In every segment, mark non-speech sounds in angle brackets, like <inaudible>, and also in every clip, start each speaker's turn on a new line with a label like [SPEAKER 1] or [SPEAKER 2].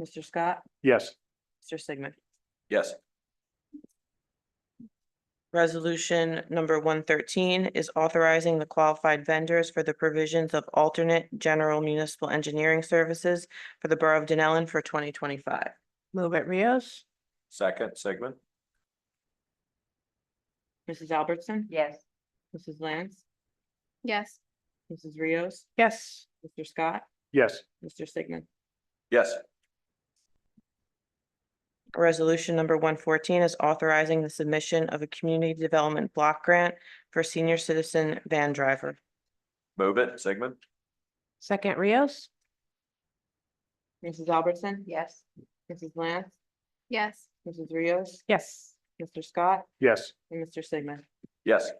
[SPEAKER 1] Mr. Scott,
[SPEAKER 2] Yes.
[SPEAKER 1] Mr. Sigmund.
[SPEAKER 3] Yes.
[SPEAKER 1] Resolution number one thirteen is authorizing the qualified vendors for the provisions of alternate general municipal engineering services for the Borough of Denellen for twenty twenty-five.
[SPEAKER 4] Move it Rios?
[SPEAKER 3] Second, Sigmund?
[SPEAKER 1] Mrs. Albertson?
[SPEAKER 5] yes,
[SPEAKER 1] Mrs. Lance?
[SPEAKER 6] yes,
[SPEAKER 1] Mrs. Rios?
[SPEAKER 4] Yes.
[SPEAKER 1] Mr. Scott?
[SPEAKER 2] Yes.
[SPEAKER 1] Mr. Sigmund.
[SPEAKER 3] Yes.
[SPEAKER 1] Resolution number one fourteen is authorizing the submission of a community development block grant for senior citizen van driver.
[SPEAKER 3] Move it, Sigmund?
[SPEAKER 4] Second Rios?
[SPEAKER 1] Mrs. Albertson?
[SPEAKER 5] yes,
[SPEAKER 1] Mrs. Lance?
[SPEAKER 6] yes,
[SPEAKER 1] Mrs. Rios?
[SPEAKER 4] Yes.
[SPEAKER 1] Mr. Scott?
[SPEAKER 2] Yes.
[SPEAKER 1] And Mr. Sigmund.
[SPEAKER 3] Yes.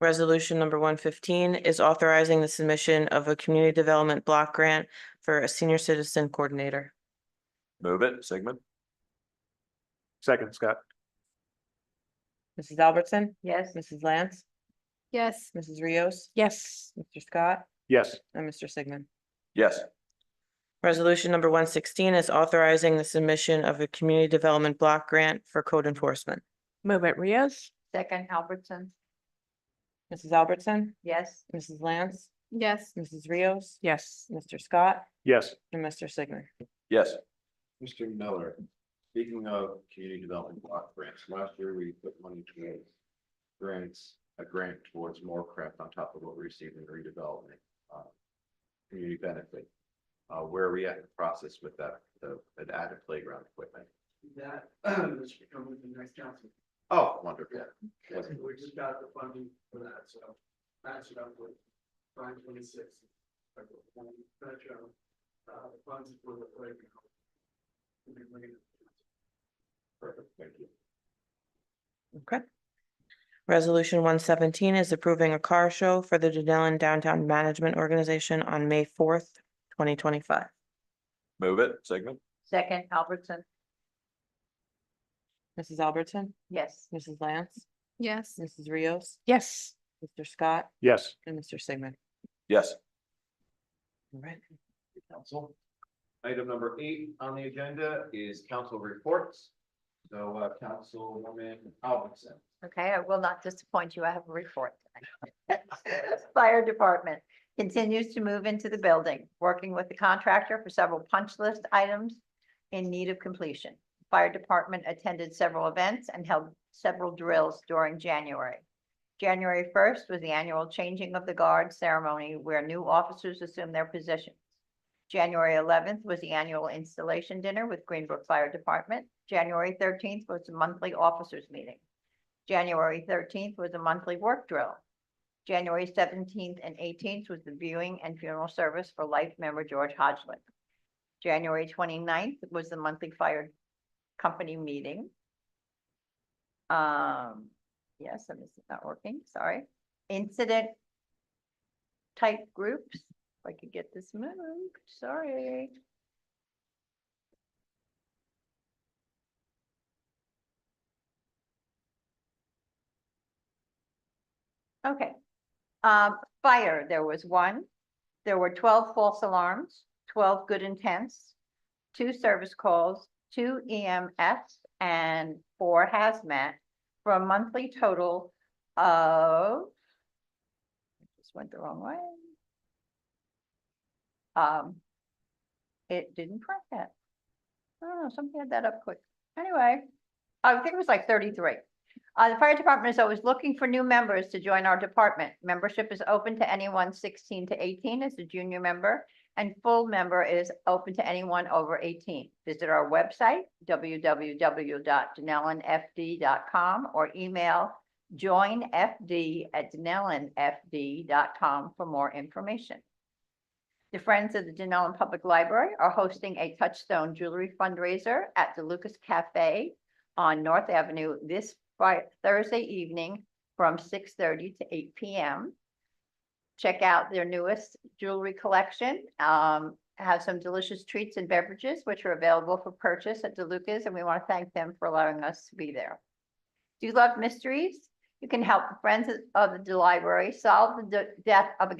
[SPEAKER 1] Resolution number one fifteen is authorizing the submission of a community development block grant for a senior citizen coordinator.
[SPEAKER 3] Move it, Sigmund?
[SPEAKER 2] Second, Scott.
[SPEAKER 1] Mrs. Albertson?
[SPEAKER 5] yes,
[SPEAKER 1] Mrs. Lance?
[SPEAKER 6] yes,
[SPEAKER 1] Mrs. Rios?
[SPEAKER 4] Yes.
[SPEAKER 1] Mr. Scott?
[SPEAKER 2] Yes.
[SPEAKER 1] And Mr. Sigmund.
[SPEAKER 3] Yes.
[SPEAKER 1] Resolution number one sixteen is authorizing the submission of a community development block grant for code enforcement.
[SPEAKER 4] Move it Rios?
[SPEAKER 5] second Albertson,
[SPEAKER 1] Mrs. Albertson?
[SPEAKER 5] yes,
[SPEAKER 1] Mrs. Lance?
[SPEAKER 6] yes,
[SPEAKER 1] Mrs. Rios?
[SPEAKER 4] Yes.
[SPEAKER 1] Mr. Scott?
[SPEAKER 2] Yes.
[SPEAKER 1] And Mr. Sigmund.
[SPEAKER 3] Yes.
[SPEAKER 7] Mr. Miller, speaking of community development block grants, last year we put money towards grants, a grant towards Moorcraft on top of what we received in redevelopment, uh, community benefit. Uh, where are we at in the process with that, the, the added playground equipment?
[SPEAKER 8] that, <clears throat> that should come with the next council.
[SPEAKER 7] Oh, wonderful.
[SPEAKER 8] We just got the funding for that, so match it up with nine twenty-six. Uh, the funds for the playground. And then we're gonna-
[SPEAKER 7] Perfect, thank you.
[SPEAKER 1] Okay. Resolution one seventeen is approving a car show for the Denellen Downtown Management Organization on May fourth, twenty twenty-five.
[SPEAKER 3] Move it, Sigmund?
[SPEAKER 5] second Albertson,
[SPEAKER 1] Mrs. Albertson,
[SPEAKER 5] yes,
[SPEAKER 1] Mrs. Lance,
[SPEAKER 6] yes,
[SPEAKER 1] Mrs. Rios,
[SPEAKER 4] Yes.
[SPEAKER 1] Mr. Scott,
[SPEAKER 2] Yes.
[SPEAKER 1] and Mr. Sigmund.
[SPEAKER 3] Yes.
[SPEAKER 1] All right.
[SPEAKER 7] Council. Item number eight on the agenda is council reports. So, uh, Councilwoman Albertson.
[SPEAKER 5] okay, I will not disappoint you, I have a report. tonight. <laughs> Fire Department continues to move into the building, working with the contractor for several punch list items in need of completion. Fire Department attended several events and held several drills during January. January first was the annual changing of the guard ceremony where new officers assume their positions. January eleventh was the annual installation dinner with Greenbrook Fire Department. January thirteenth was the monthly officers meeting. January thirteenth was a monthly work drill. January seventeenth and eighteenth was the viewing and funeral service for life member George Hodgman. January 29th was the monthly fire company meeting. Um, yes, and this is not working, sorry. Incident type groups, if I could get this moved, sorry. Okay. Um, fire, there was one. There were twelve false alarms, twelve good intents, two service calls, two EMS, and four hazmat for a monthly total of just went the wrong way. Um, it didn't print that. I don't know, something had that up quick. Anyway, I think it was like thirty-three. Uh, the fire department is always looking for new members to join our department. Membership is open to anyone sixteen to eighteen as a junior member. And full member is open to anyone over eighteen. Visit our website, www.denellenfd.com or email joinfd@denellenfd.com for more information. The Friends of the Denellen Public Library are hosting a Touchstone Jewelry fundraiser at the Lucas Cafe on North Avenue this Fri- Thursday evening from six thirty to eight P M. Check out their newest jewelry collection, um, have some delicious treats and beverages, which are available for purchase at DeLuca's, and we want to thank them for allowing us to be there. Do you love mysteries? You can help the Friends of the Library solve the de- death of a